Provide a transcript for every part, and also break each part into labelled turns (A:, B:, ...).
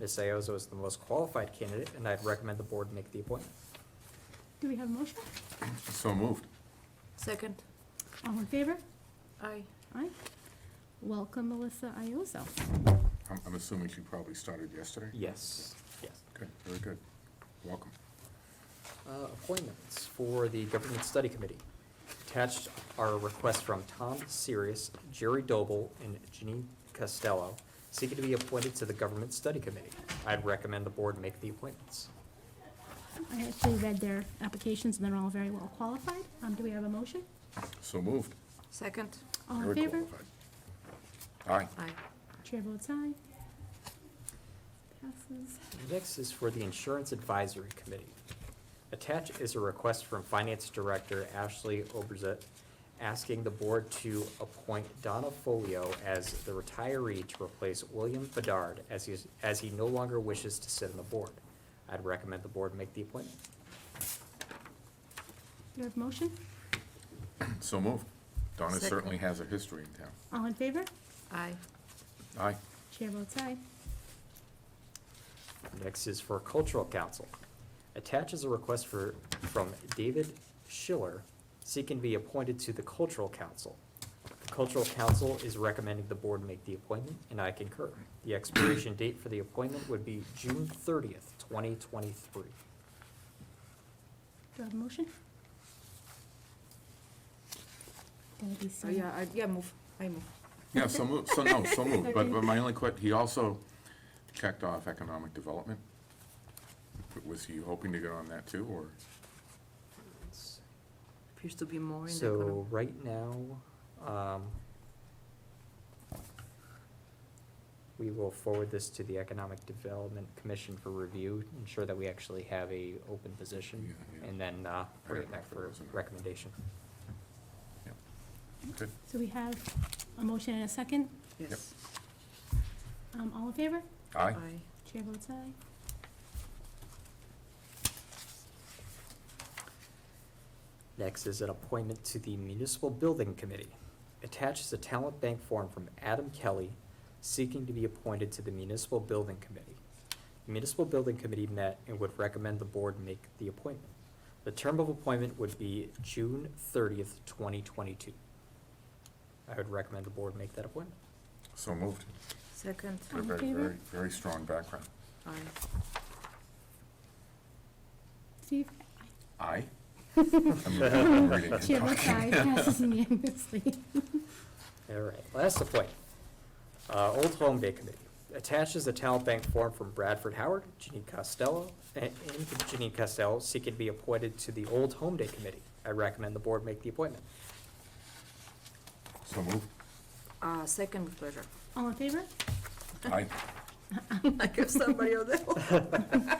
A: Ms. Iozzo is the most qualified candidate, and I'd recommend the board make the appointment.
B: Do we have a motion?
C: So moved.
D: Second.
B: All in favor?
D: Aye.
B: Aye. Welcome, Melissa Iozzo.
C: I'm, I'm assuming she probably started yesterday?
A: Yes, yes.
C: Good, very good. Welcome.
A: Uh, Appointments for the Government Study Committee. Attached are requests from Tom Sirius, Jerry Doble, and Janine Costello seeking to be appointed to the Government Study Committee. I'd recommend the board make the appointments.
B: I actually read their applications, and they're all very well qualified. Um, Do we have a motion?
C: So moved.
D: Second.
B: All in
C: Very
B: favor?
C: qualified. Aye.
D: Aye.
B: Chair votes aye. Passes.
A: Next is for the Insurance Advisory Committee. Attached is a request from Finance Director Ashley Oberzett asking the board to appoint Donna Folio as the retiree to replace William Bedard as he, as he no longer wishes to sit on the board. I'd recommend the board make the appointment.
B: Do we have a motion?
C: So moved. Donna
D: Second.
C: certainly has a history in town.
B: All in favor?
D: Aye.
C: Aye.
B: Chair votes aye.
A: Next is for Cultural Council. Attached is a request for, from David Schiller seeking to be appointed to the Cultural Council. The Cultural Council is recommending the board make the appointment, and I concur. The expiration date for the appointment would be June thirtieth, twenty twenty-three.
B: Do I have a motion? Gonna be
D: Oh,
B: soon.
D: yeah, I, yeah, move. I move.
C: Yeah, so moved, so no, so moved. But, but my only que, he also checked off economic development. Was he hoping to get on that too, or?
D: Appears to be more in the.
A: So right now, um, we will forward this to the Economic Development Commission for review, ensure that we actually have a open position,
C: Yeah, yeah.
A: and then, uh, bring it
C: don't know
A: back
C: if there
A: for
C: was an-
A: recommendation.
C: yeah. Good.
B: So we have a motion and a second.
D: Yes.
B: Um, All in favor?
C: Aye.
B: Chair votes aye.
A: Next is an appointment to the Municipal Building Committee. Attached is a talent bank form from Adam Kelly seeking to be appointed to the Municipal Building Committee. The Municipal Building Committee met and would recommend the board make the appointment. The term of appointment would be June thirtieth, twenty twenty-two. I would recommend the board make that appointment.
C: So moved.
D: Second.
B: All in
C: Very,
B: favor?
C: very, very strong background.
D: Aye.
B: Steve?
C: Aye? I'm reading- I'm reading and
B: Chair votes
C: talking.
B: aye, passes unanimously.
A: All right, last appointment. Uh, Old Home Day Committee. Attaches a talent bank form from Bradford Howard, Janine Costello, and and Janine Costello seeking to be appointed to the Old Home Day Committee. I recommend the board make the appointment.
C: So moved.
D: Uh, second with pleasure.
B: All in favor?
C: Aye.
D: I give somebody else that one.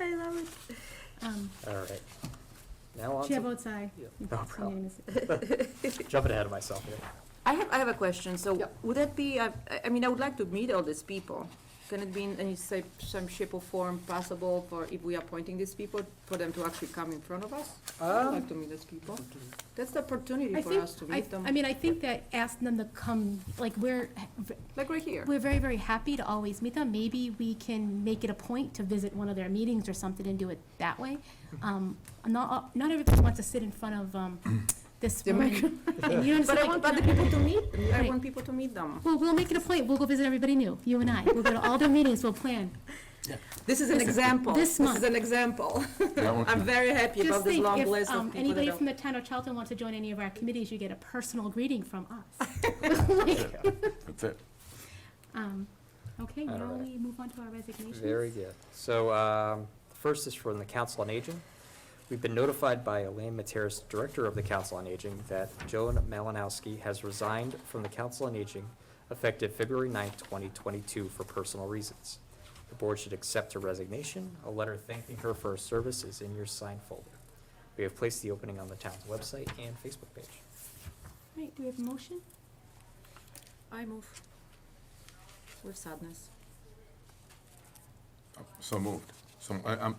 D: I love it.
B: Um,
A: All right. Now on
B: Chair
A: to,
B: votes aye.
D: Yeah.
B: It
C: Oh,
A: No
B: passes
A: problem.
B: unanimously.
A: jumping ahead of myself here.
D: I have, I have a question, so
A: Yeah.
D: would that be, I, I mean, I would like to meet all these people. Can it be in any shape, some shape or form possible for, if we are appointing these people, for them to actually come in front of us? I would
A: Um,
D: like to meet these people. That's the opportunity
B: I
D: for
B: think,
D: us to
B: I,
D: meet them,
B: I mean, I think that asking them to come, like, we're,
D: like right here.
B: we're very, very happy to always meet them. Maybe we can make it a point to visit one of their meetings or something and do it that way. Um, not, not everybody wants to sit in front of, um, this
D: The
B: woman. And you
D: But I
B: understand,
D: want
B: like,
D: other people to meet, them. I
B: Right.
D: want people to meet them.
B: Well, we'll make it a point. We'll go visit everybody new, you and I. We'll go to all their meetings, we'll plan.
D: This is an
B: This-
D: example.
B: this month.
D: is an example.
C: That one-
D: I'm very happy
B: Just
D: about this
B: think,
D: long
B: if
D: list
B: um,
D: of people that
B: anybody
D: are.
B: from the town of Charlton wants to join any of our committees, you get a personal greeting from us.
C: That's it.
B: Um, Okay,
A: All
B: now
A: right.
B: we move on to our resignations.
A: Very good. So, um, first is from the Council on Aging. We've been notified by Elaine Materis, Director of the Council on Aging, that Joan Malinowski has resigned from the Council on Aging effective February 9th, twenty twenty-two for personal reasons. The board should accept her resignation. A letter thanking her for her service is in your sign folder. We have placed the opening on the town's website and Facebook page.
B: Right, do we have a motion?
D: I move with sadness.
C: So moved. So, I, I'm,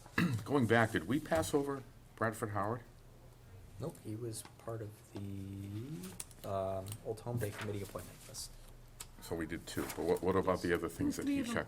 C: going back, did we pass over Bradford Howard?
A: Nope, he was part of the, um, Old Home Day Committee appointment list.
C: So we did two, but what, what about the other things that
B: Three
C: he
B: of 'em.
C: checked?